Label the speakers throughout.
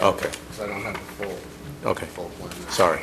Speaker 1: Okay.
Speaker 2: Because I don't have the full.
Speaker 1: Okay.
Speaker 2: Full plan. there.
Speaker 1: Sorry.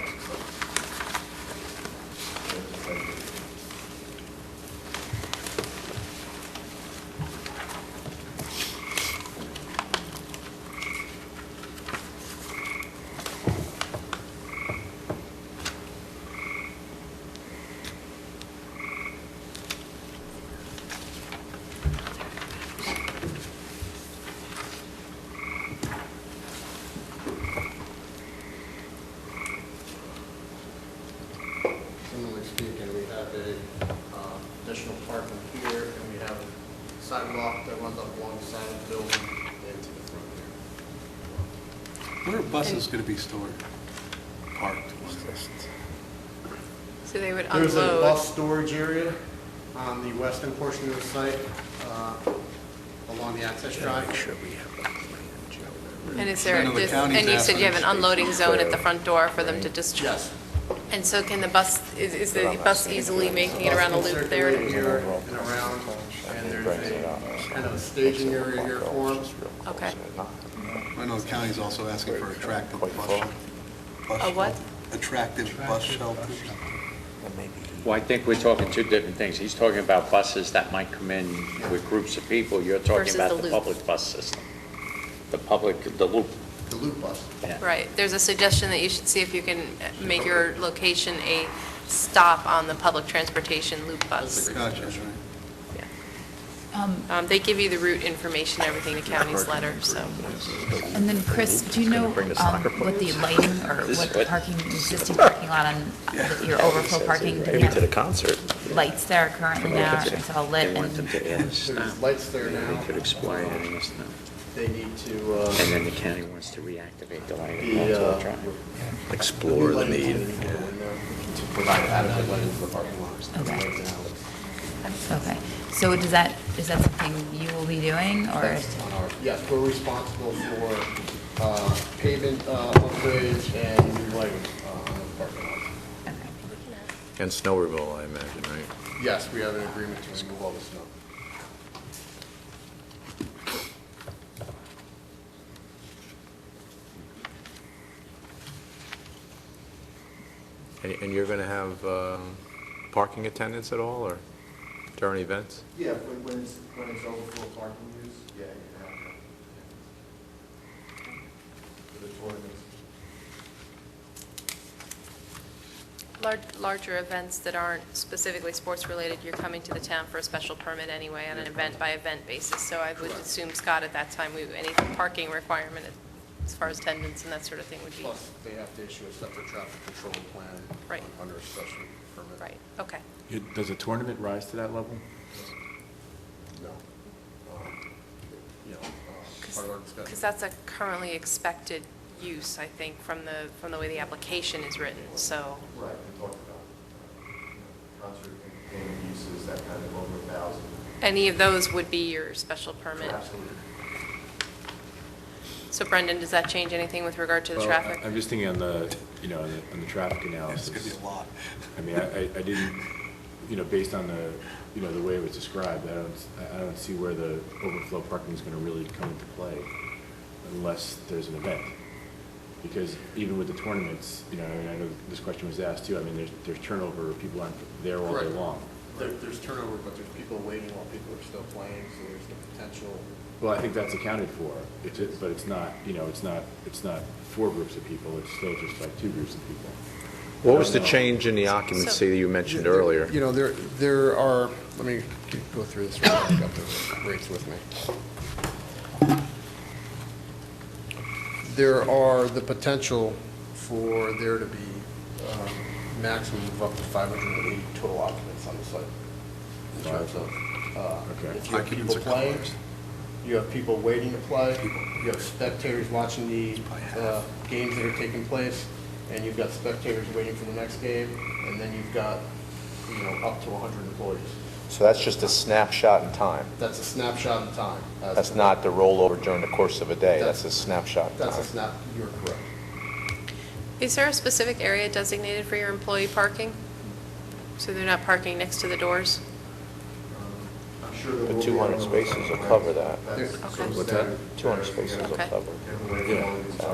Speaker 2: Similarly speaking, we have a um, additional parking here, and we have a sidewalk that runs up alongside the building into the front here.
Speaker 3: Where are buses going to be stored, parked?
Speaker 4: So they would
Speaker 2: There's a
Speaker 4: unload,
Speaker 2: bus storage area on the western portion of the site, uh, along the access drive.
Speaker 1: we have a plan, Joe.
Speaker 4: and is there,
Speaker 3: No, no, the
Speaker 4: dis-
Speaker 3: county's
Speaker 4: and you said you have an
Speaker 3: asking.
Speaker 4: unloading zone at the front door for them to discharge?
Speaker 2: Yes.
Speaker 4: And so can the bus, is, is the bus easily making it around the loop
Speaker 2: Circulate
Speaker 4: there?
Speaker 2: Here and around, and there's a kind of a staging area here for them.
Speaker 4: Okay.
Speaker 3: I know the county's also asking for attractive bus shelter. bus
Speaker 4: A what?
Speaker 3: shelter. Attractive bus shelters.
Speaker 5: Well, I think we're talking two different things. He's talking about buses that might come in with groups of people. You're
Speaker 4: Versus
Speaker 5: talking
Speaker 4: the
Speaker 5: about the
Speaker 4: loop.
Speaker 5: public bus system. The public, the loop.
Speaker 2: The loop bus.
Speaker 5: yeah.
Speaker 4: Right, there's a suggestion that you should see if you can uh, make your location a stop on the public transportation loop bus.
Speaker 3: Gotcha, right.
Speaker 4: Yeah.
Speaker 6: Um,
Speaker 4: Um, they give you the route information, everything to county's letter, so.
Speaker 6: And then, Chris, do you know um, what the lighting or
Speaker 5: This is
Speaker 6: what
Speaker 5: what-
Speaker 6: existing parking parking lot on the- your overflow parking, do you have
Speaker 5: concert.
Speaker 6: lights there currently now, or is it all lit?
Speaker 5: They want them
Speaker 6: and-
Speaker 5: to add a
Speaker 2: There's
Speaker 5: stop.
Speaker 2: lights there
Speaker 5: They
Speaker 2: now.
Speaker 5: could explain it in a stop.
Speaker 2: They need to, uh,
Speaker 5: And then the county wants to reactivate the light.
Speaker 2: the,
Speaker 5: That's
Speaker 2: uh,
Speaker 5: all trying.
Speaker 2: Explore the need. To provide adequate lighting for the parking lots.
Speaker 6: Okay.
Speaker 2: Right now,
Speaker 6: Okay, so does that, is that something you will be doing, or?
Speaker 2: that's on our- Yes, we're responsible for uh, pavement uh, upgrades and new lighting uh, on the parking lot.
Speaker 6: okay.
Speaker 1: And snow removal, I imagine, right?
Speaker 2: Yes, we have an agreement to remove all the snow.
Speaker 1: And- And you're going to have um, parking attendants at all, or during events?
Speaker 2: Yeah, when, when it's, when it's overflow parking use? Yeah, you have that. For the tournaments.
Speaker 4: Lar- Larger events that aren't specifically sports-related, you're coming to the town for a special permit anyway on an event-by-event basis. So I would assume, Scott, at that time, we any parking requirement as far as attendance and that sort of thing would be,
Speaker 2: Plus, they have to issue a separate traffic control plan.
Speaker 4: Right.
Speaker 2: Under a special permit.
Speaker 4: right, okay.
Speaker 7: It- Does a tournament rise to that level?
Speaker 2: No. Um, You know, uh, part of our discussion.
Speaker 4: Because that's a currently expected use, I think, from the, from the way the application is written, so.
Speaker 8: Right, we talked about uh, you know, concert entertainment uses, that kind of over a thousand.
Speaker 4: Any of those would be your special permit.
Speaker 8: Absolutely.
Speaker 4: So Brendan, does that change anything with regard to the
Speaker 7: Well,
Speaker 4: traffic?
Speaker 7: I- I'm just thinking on the, you know, on the- on the traffic
Speaker 3: It's going to
Speaker 7: analysis.
Speaker 3: be a lot.
Speaker 7: I mean, I, I I didn't, you know, based on the, you know, the way it was described, I don't, I- I don't see where the overflow parking is going to really come into play unless there's an event. Because even with the tournaments, you know, and I know this question was asked too, I mean, there's, there's turnover, people aren't there all day
Speaker 2: Correct.
Speaker 7: long.
Speaker 2: There, there's turnover, but there's people waiting while people are still playing, so there's the potential.
Speaker 7: Well, I think that's accounted for, it's, it's- but it's not, you know, it's not, it's not four groups of people, it's still just like two groups of people.
Speaker 1: What was the
Speaker 7: No.
Speaker 1: change in the occupancy that you mentioned earlier?
Speaker 2: You know, there, there are, let me go through this, real quick. I've got the rates with me. There are the potential for there to be um, maximum of up to 580 total occupants on the site. In terms of, uh,
Speaker 7: Okay.
Speaker 2: if you have people playing, you have people waiting to play, you have spectators watching the uh, games that are taking place, and you've got spectators waiting for the next game, and then you've got, you know, up to 100 employees.
Speaker 1: So that's just a snapshot in time.
Speaker 2: That's a snapshot in time. as
Speaker 1: That's
Speaker 2: to-
Speaker 1: not the rollover during the course of a day. That's a snapshot in
Speaker 2: That's a
Speaker 1: time.
Speaker 2: snap, you're correct.
Speaker 4: Is there a specific area designated for your employee parking? So they're not parking next to the doors?
Speaker 8: Um, I'm sure there
Speaker 1: The
Speaker 8: will be
Speaker 1: 200
Speaker 8: other-
Speaker 1: spaces will cover that.
Speaker 8: That's
Speaker 2: There-
Speaker 8: sort of
Speaker 4: What's
Speaker 1: that?
Speaker 8: standard.
Speaker 1: 200 spaces will Uh,
Speaker 4: Okay.
Speaker 1: cover.
Speaker 8: Everywhere you
Speaker 7: Yeah.
Speaker 8: go, it's-